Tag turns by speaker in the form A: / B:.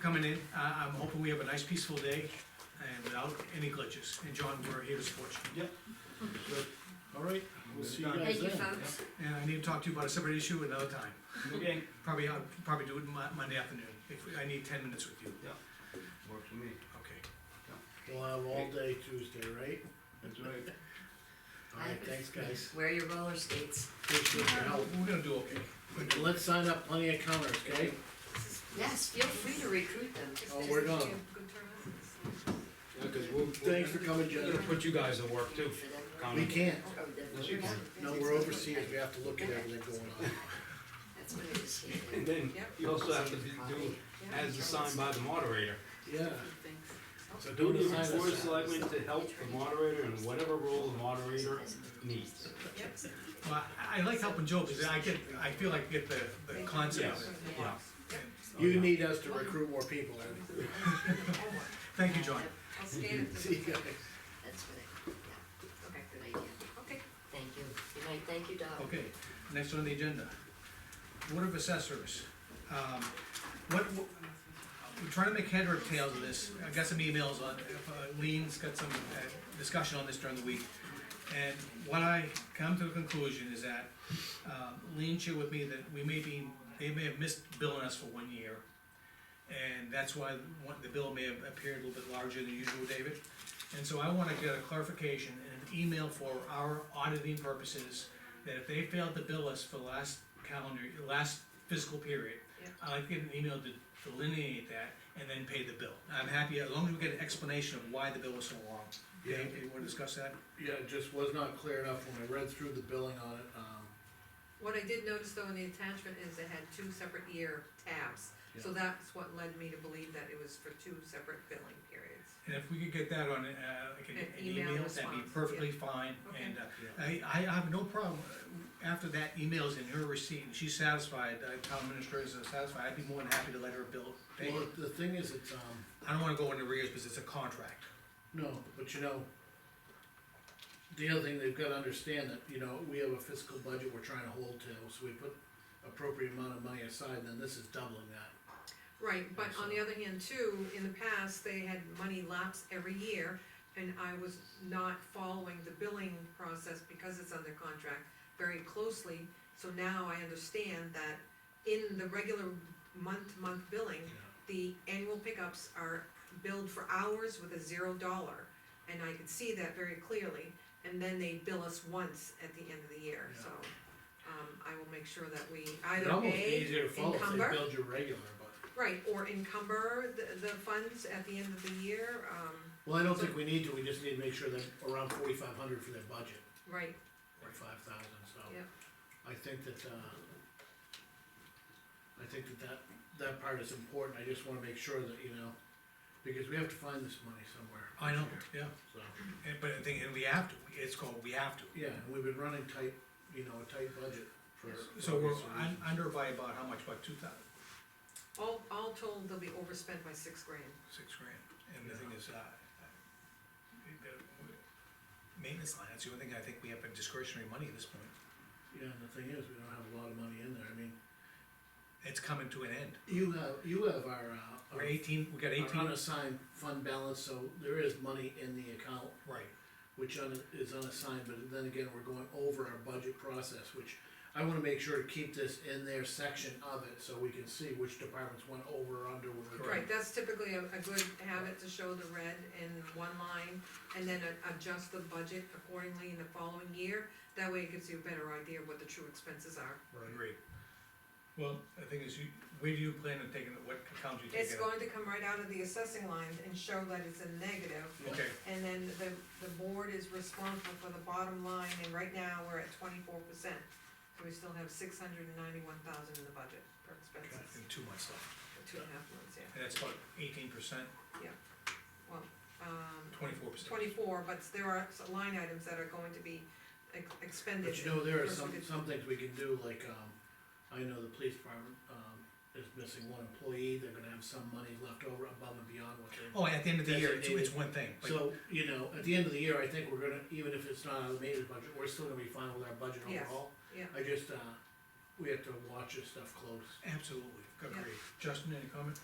A: coming in. Uh, I'm hoping we have a nice peaceful day and without any glitches. And John, we're here to support you.
B: All right, we'll see you guys
C: Thank you,
B: then.
C: folks.
A: And I need to talk to you about a separate issue another time.
D: Okay,
A: Probably, I'll probably do it Mon- Monday afternoon. If, I need ten minutes with you.
D: works for me,
A: Okay.
B: We'll have all day Tuesday, right?
D: that's right.
B: All right, thanks, guys.
C: Wear your roller skates.
B: Appreciate your help.
A: We're gonna do okay.
B: And let's sign up plenty of counters, okay?
C: Yes, feel free to recruit them.
B: Oh, we're done.
E: Yeah, cause we'll, we're
B: Thanks for coming,
E: gonna
B: John.
E: put you guys to work too.
B: We can't.
C: Oh,
E: Yes, you can.
B: No, we're overseas. We have to look at everything going on.
C: That's what it is.
E: And then you also have to be- do as assigned by the moderator.
B: Yeah.
C: Oh.
B: So
E: Do
B: don't
E: the
B: assign
E: board of
B: us.
E: selectmen to help the moderator in whatever role the moderator needs.
A: Well, I- I like helping Joe because I get, I feel like I get the, the concept of
E: Yes.
A: it.
E: Yeah.
B: You need us to recruit more people, Ernie.
A: Thank you, John.
F: Oh, I'll scan it.
B: See you guys.
C: That's what it, yeah, okay, good idea. Okay. Thank you. Good night, thank you, Doc.
A: Okay, next on the agenda. Board of Assessors. Um, What, what- we're trying to make head or tails of this. I got some emails on, uh, Lean's got some uh, discussion on this during the week. And what I come to a conclusion is that uh, Lean shared with me that we may be, they may have missed billing us for one year. And that's why one- the bill may have appeared a little bit larger than usual, David. And so I wanna get a clarification and an email for our auditing purposes, that if they failed to bill us for the last calendar, last fiscal period,
F: Yeah.
A: I'd like to get an email to delineate that and then pay the bill. I'm happy, as long as we get an explanation of why the bill was so long.
B: Yeah.
A: Okay, you wanna discuss that?
B: Yeah, it just was not clear enough when I read through the billing on it. Um,
F: What I did notice though in the attachment is it had two separate year tabs, so that's what led me to believe that it was for two separate billing periods.
A: And if we could get that on, uh, like an
F: An
A: an
F: email
A: email, that'd be
F: response,
A: perfectly fine,
F: Okay.
A: and, uh, I, I have no problem, uh, after that email's in her receipt, and she's satisfied, the town administrators are satisfied, I'd be more than happy to let her bill pay.
B: Well, the thing is, it's, um,
A: I don't wanna go into arrears, because it's a contract.
B: No, but you know, the other thing they've gotta understand that, you know, we have a fiscal budget we're trying to hold to, so we put appropriate amount of money aside, then this is doubling that.
F: Right, but on the other hand too, in the past, they had money lapse every year, and I was not following the billing process because it's under contract very closely, so now I understand that in the regular month-to-month billing, the annual pickups are billed for hours with a zero dollar, and I could see that very clearly, and then they bill us once at the end of the year, so, um, I will make sure that we either
B: It'd
F: A, encumber.
B: almost be easier to follow if they build your regular, but,
F: Right, or encumber the, the funds at the end of the year, um,
B: well, I don't think we need to, we just need to make sure that around forty-five hundred for their budget,
F: right,
B: or five thousand, so.
F: Yep.
B: I think that, uh, I think that that, that part is important, I just wanna make sure that, you know, because we have to find this money somewhere.
A: I know,
B: this
A: yeah,
B: year, So.
A: and, but the thing, and we have to, it's called, we have to.
B: Yeah, and we've been running tight, you know, a tight budget for.
A: So we're
B: obvious
A: un-
B: reasons.
A: under by about how much, about two thousand,
F: all, all told, they'll be overspent by six grand.
A: six grand, and the thing is, uh, uh, the maintenance line, that's the only thing I think we have in discretionary money at this point.
B: Yeah, and the thing is, we don't have a lot of money in there, I mean,
A: It's coming to an end,
B: you have, you have our, uh,
A: we're
B: our-
A: eighteen, we got
B: our
A: eighteen,
B: unassigned fund balance, so there is money in the account,
A: right,
B: which un- is unassigned, but then again, we're going over our budget process, which I wanna make sure to keep this in their section of it, so we can see which departments went over or under. when we-
F: Right, that's typically a, a good habit to show the red in one line, and then a- adjust the budget accordingly in the following year. That way it gives you a better idea of what the true expenses are.
A: Agreed. Well, the thing is, you, where do you plan on taking it, what accounts you
F: It's
A: taking it?
F: going to come right out of the assessing line and show that it's a negative,
A: Okay,
F: and then the, the board is responsible for the bottom line, and right now, we're at twenty-four percent. So we still have six hundred and ninety-one thousand in the budget for expenses,
A: in two months left,
F: for two and a half months, yeah.
A: and that's about eighteen percent,
F: Um,
A: twenty-four percent.
F: twenty-four, but there are s- line items that are going to be ex- expended.
B: But you know, there are
F: First we
B: some,
F: did-
B: some things we can do, like, um, I know the police department, um, is missing one employee, they're gonna have some money left over above and beyond what they.
A: Oh, at the end of the year, it's,
B: Designated.
A: it's one thing, but,
B: So, you know, at the end of the year, I think we're gonna, even if it's not out of the maintenance budget, we're still gonna be fine with our budget
F: Yes,
B: overall.
F: yeah.
B: I just, uh, we have to watch this stuff close.
A: absolutely,
F: Yeah.
A: agreed. Justin, any comment?